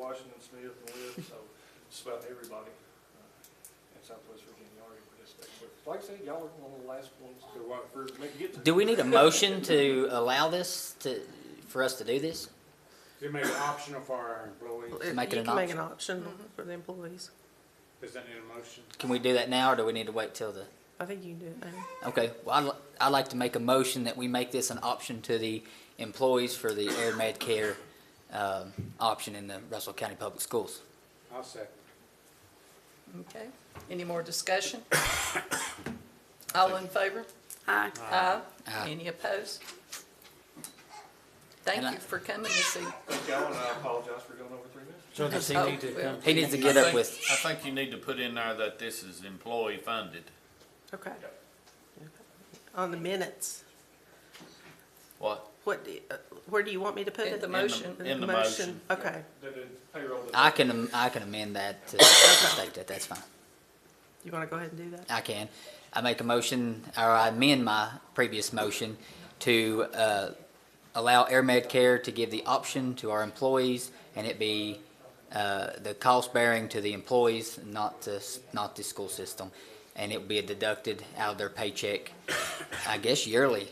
Washington Smith and Webb, so just about everybody uh, in Southwest Virginia already participated. But Like I said, y'all are one of the last ones to, wa- for me to get to. Do we need a motion to allow this to, for us to do this? You make it optional for our employees. Make it You an can make option. an option Mm-hmm. for the employees. Does that need a motion? Can we do that now, or do we need to wait till the? I think you can do it now. Okay, well, I'd, li- I'd like to make a motion that we make this an option to the employees for the air med care, um, option in the Russell County Public Schools. I'll second. Okay, any more discussion? All in favor? Aye. Aye. Aye. Any opposed? Thank And I- you for coming this evening. Thank y'all, and I apologize for going over three minutes. So does he Oh, need to well, come? He needs to I get up think- with, I think you need to put in there that this is employee funded. Okay. On the minutes, What? what, do- uh, where do you want me to put In it? the motion. In the motion. Okay, That is payroll. that- I can, am- I can amend that to state that, that's fine. you want to go ahead and do that? I can. I make a motion, or I amend my previous motion to uh, allow Air Med Care to give the option to our employees and it be uh, the cost bearing to the employees, not to, s- not the school system. And it would be deducted out of their paycheck, I guess yearly,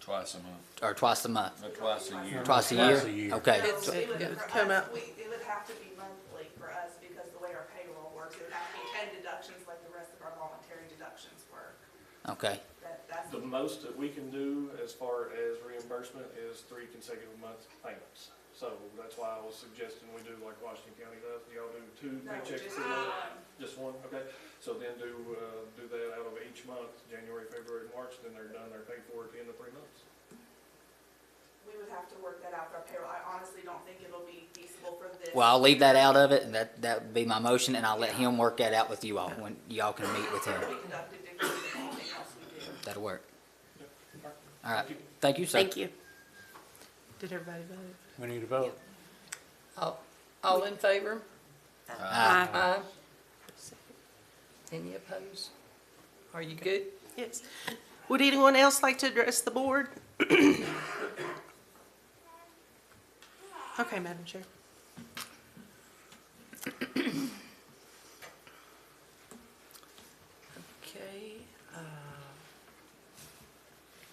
Twice a month, or twice a month, or twice a year. twice a year? Twice a year. Okay. It's- No, it would- it would for come us, out- we- It would have to be monthly for us because the way our payroll works, it would have to be ten deductions like the rest of our voluntary deductions work. Okay, That, that's, The most that we can do as far as reimbursement is three consecutive month payments. So that's why I was suggesting we do like Washington County does, y'all do two no, paychecks just um, for one? one. Just one, okay, so then do, uh, do that out of each month, January, February, March, then they're done, they're paid for at the end of three months. We would have to work that out for our payroll. I honestly don't think it'll be feasible for this. well, I'll leave that out of it and that, that would be my motion and I'll let him work that out with you all when y'all can meet with him. We deducted different than anything else we do. That'll work. Alright. All right, thank you, sir. you. Did everybody vote? We need a vote. All, all in favor? Aye. Aye. Any opposed? Are you good? Yes. Would anyone else like to address the board? Okay, Madam Chair. Okay. uh,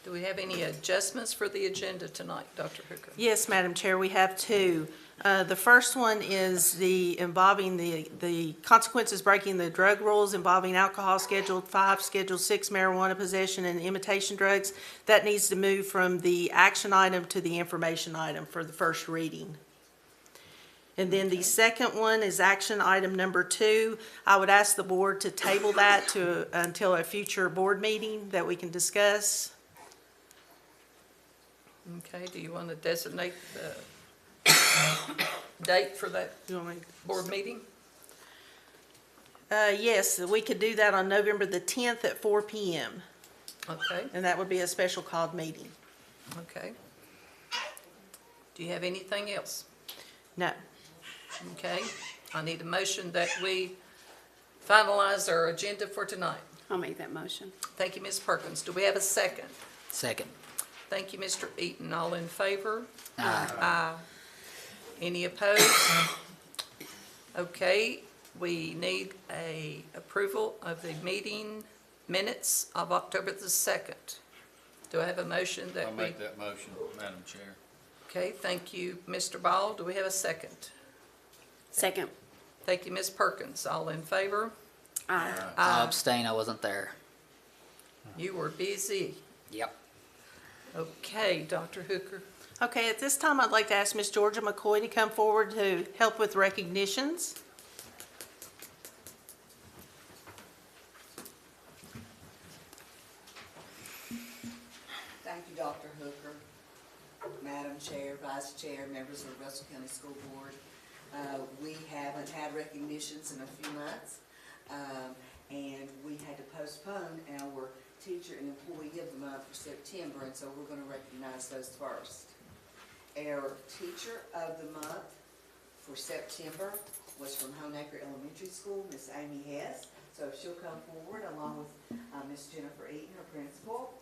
Do we have any adjustments for the agenda tonight, Dr. Hooker? Yes, Madam Chair, we have two. Uh, The first one is the involving the, the consequences breaking the drug rules involving alcohol, Schedule 5, Schedule 6 marijuana possession and imitation drugs. That needs to move from the action item to the information item for the first reading. And then the second one is action item number two. I would ask the board to table that to, until a future board meeting that we can discuss. Okay, do you want to designate the date for that You want me- board meeting? Uh, yes, we could do that on November the tenth at four PM, Okay, and that would be a special called meeting. okay. Do you have anything else? No, Okay, I need a motion that we finalize our agenda for tonight. I'll make that motion. Thank you, Ms. Perkins. Do we have a second? Second. Thank you, Mr. Eaton. All in favor? Aye. Any opposed? Okay, we need a approval of the meeting minutes of October the 2nd. Do I have a motion I'll that we? make that motion, Madam Chair. Okay, thank you, Mr. Ball. Do we have a second? Second. Thank you, Ms. Perkins. All in favor? Aye. I abstain, I wasn't there. You were busy. Yep. Okay, Dr. Hooker. okay, at this time, I'd like to ask Miss Georgia McCoy to come forward to help with recognitions. Thank you, Dr. Hooker, Madam Chair, Vice Chair, members of the Russell County School Board. Uh, We haven't had recognitions in a few months, um, and we had to postpone our Teacher and Employee of the Month for September, and so we're going to recognize those first. Our Teacher of the Month for September was from Honaker Elementary School, Miss Amy Hess. So if she'll come forward along with uh, Miss Jennifer Eaton, her principal.